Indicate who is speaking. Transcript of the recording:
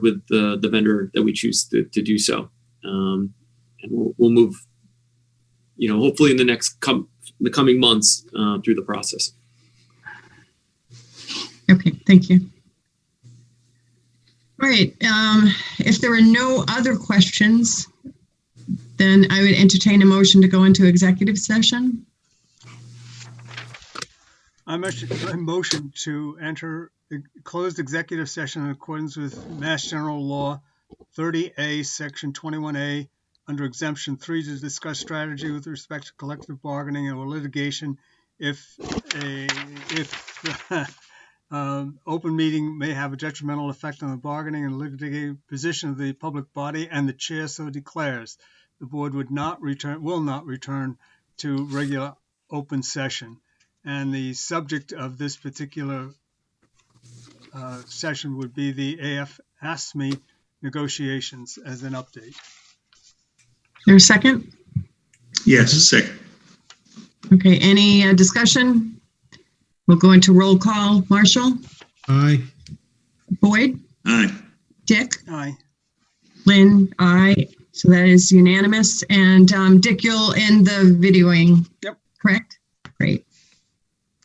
Speaker 1: with the, the vendor that we choose to, to do so. Um, and we'll, we'll move, you know, hopefully in the next com- the coming months uh, through the process.
Speaker 2: Okay, thank you. All right, um, if there are no other questions, then I would entertain a motion to go into executive session.
Speaker 3: I motion- I motion to enter the closed executive session in accordance with Mass General Law 30A, Section 21A, under exemption three to discuss strategy with respect to collective bargaining or litigation if a, if um, open meeting may have a detrimental effect on the bargaining and litigating position of the public body and the chair so declares. The board would not return, will not return to regular open session. And the subject of this particular uh, session would be the AF ASME E negotiations as an update.
Speaker 2: There a second?
Speaker 4: Yes, second.
Speaker 2: Okay, any uh, discussion? We'll go into roll call. Marshall,
Speaker 5: Aye.
Speaker 2: Boyd,
Speaker 4: Aye.
Speaker 2: Dick,
Speaker 3: Aye.
Speaker 2: Lynn, aye. So that is unanimous. And um, Dick, you'll end the videoing.
Speaker 3: Yep.
Speaker 2: Correct? Great.